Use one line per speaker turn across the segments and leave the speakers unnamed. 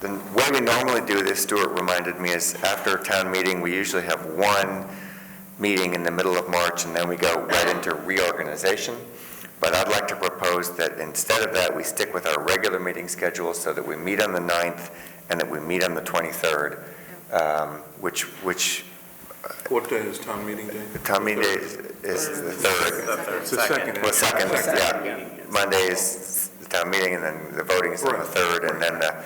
The way we normally do this, Stuart reminded me, is after a town meeting, we usually have one meeting in the middle of March, and then we go right into reorganization. But I'd like to propose that instead of that, we stick with our regular meeting schedule so that we meet on the 9th and that we meet on the 23rd, um, which, which,
What day is town meeting day?
the town meeting is is the 3rd.
It's the second.
Well, second, yeah. Monday is the town meeting, and then the voting is on the
Right.
3rd, and then the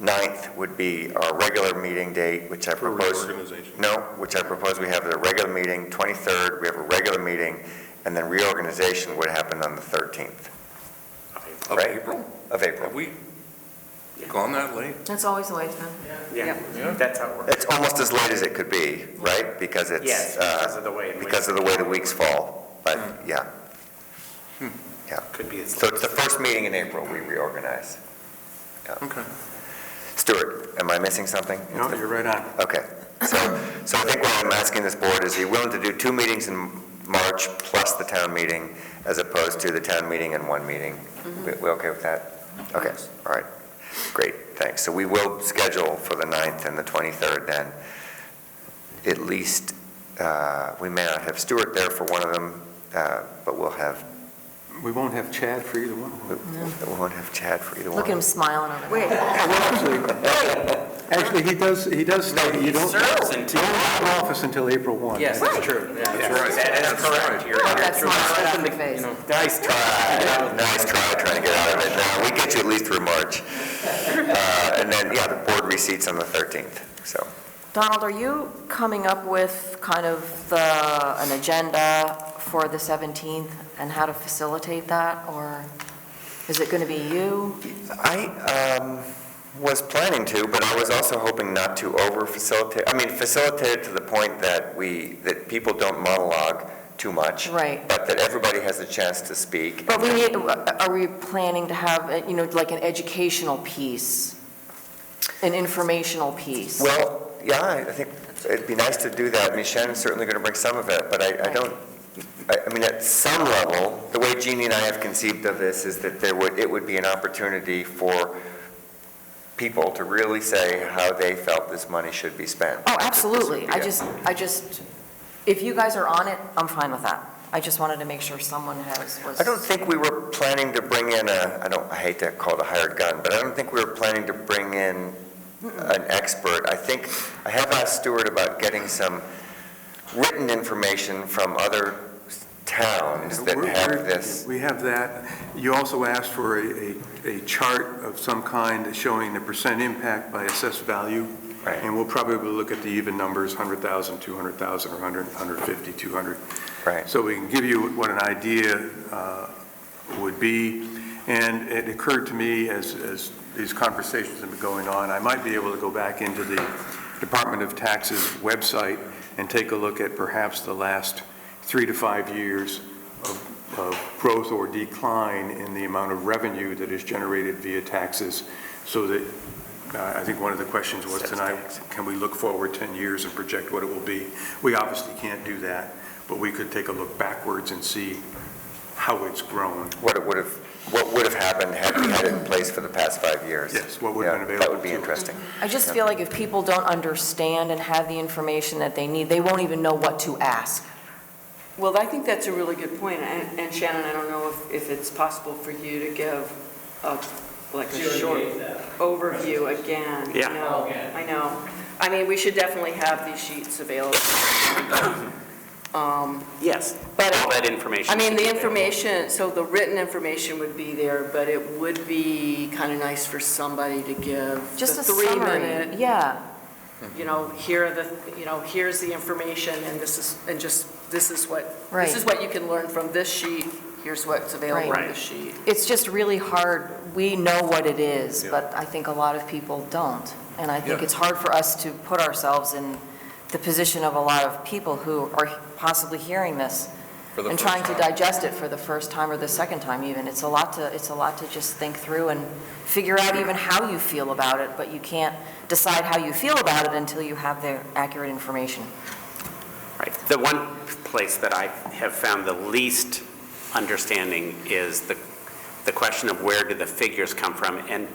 9th would be our regular meeting date, which I
For
propose.
reorganization.
No, which I propose we have the regular meeting, 23rd, we have a regular meeting, and then reorganization would happen on the 13th
Of
Right.
April?
of April.
Have we gone that late?
That's always the way it's been.
Yeah.
Yeah, that's how it works.
It's almost as late as it could be, right? Because it's.
Yes,
uh,
because of the way in which-
Because of the way the weeks fall, but, yeah. Yeah.
Could be as
So it's the first meeting in April we reorganize.
Okay.
Stuart, am I missing something?
No, you're right on.
Okay, so, so I think what I'm asking this board is, are you willing to do two meetings in March plus the town meeting, as opposed to the town meeting and one meeting?
Mm-hmm.
We we okay with that? Okay, all right, great, thanks. So we will schedule for the 9th and the 23rd then. At least, uh, we may not have Stuart there for one of them, uh, but we'll have,
We won't have Chad for either one.
we we won't have Chad for either one.
Look at him smiling over there.
Actually, he does, he does state, you don't,
serves
you
until-
don't leave office until April 1.
Yes, that's true. That is correct. You're-
Well,
you're
that's
true.
not right
It's
off the
open to, you
face.
know, Nice
Uh,
try.
Nice try, trying to get out of it. No, we get you at least through March. Uh, And then, yeah, the board receipts on the 13th, so.
Donald, are you coming up with kind of the, an agenda for the 17th and how to facilitate that? Or is it going to be you?
I um, was planning to, but I was also hoping not to over-facilitate, I mean, facilitate it to the point that we, that people don't monologue too much.
Right.
But that everybody has a chance to speak.
But we need, are we planning to have, uh, you know, like an educational piece? An informational piece?
Well, yeah, I I think it'd be nice to do that. I mean, Shannon's certainly going to bring some of it, but I, I don't, I, I mean, at some level, the way Jeannie and I have conceived of this is that there would, it would be an opportunity for people to really say how they felt this money should be spent.
Oh,
This would
absolutely.
be
I
it.
just, I just, if you guys are on it, I'm fine with that. I just wanted to make sure someone has, was.
I don't think we were planning to bring in a, I don't, I hate to call it a hired gun, but I don't think we were planning to bring in an expert. I think, I have asked Stuart about getting some written information from other towns that
We're-
have
we're-
this.
We have that. You also asked for a, a, a chart of some kind showing the percent impact by assessed value.
Right.
And we'll probably look at the even numbers, 100,000, 200,000, or 100, 150, 200.
Right.
So we can give you what an idea uh, would be. And it occurred to me, as, as these conversations have been going on, I might be able to go back into the Department of Taxes website and take a look at perhaps the last three to five years of, of growth or decline in the amount of revenue that is generated via taxes, so that, uh, I think one of the questions was tonight, can we look forward 10 years and project what it will be? We obviously can't do that, but we could take a look backwards and see how it's grown.
What it would have, what would have happened had we had it in place for the past five years.
Yes, what would have
Yeah,
been
That would
available
be
to us.
interesting.
I just feel like if people don't understand and have the information that they need, they won't even know what to ask.
Well, I think that's a really good point, and and Shannon, I don't know if, if it's possible for you to give a, like a short overview again.
Yeah.
I know, I know. I mean, we should definitely have these sheets available. Um,
Yes.
But- uh,
All that information.
I mean,
should be
the
available.
information, so the written information would be there, but it would be kind of nice for somebody to give
Just a
the
summary,
three-minute,
yeah.
you know, here are the, you know, here's the information, and this is, and just, this is what
Right.
This is what you can learn from this sheet, here's what's available
Right.
on this sheet.
It's just really hard. We know what it is, but I think a lot of people don't. And I think
Yeah.
it's hard for us to put ourselves in the position of a lot of people who are possibly hearing this and trying to digest it for the first time or the second time even. It's a lot to, it's a lot to just think through and figure out even how you feel about it, but you can't decide how you feel about it until you have the accurate information.
Right. The one place that I have found the least understanding is the, the question of where do the figures come from? And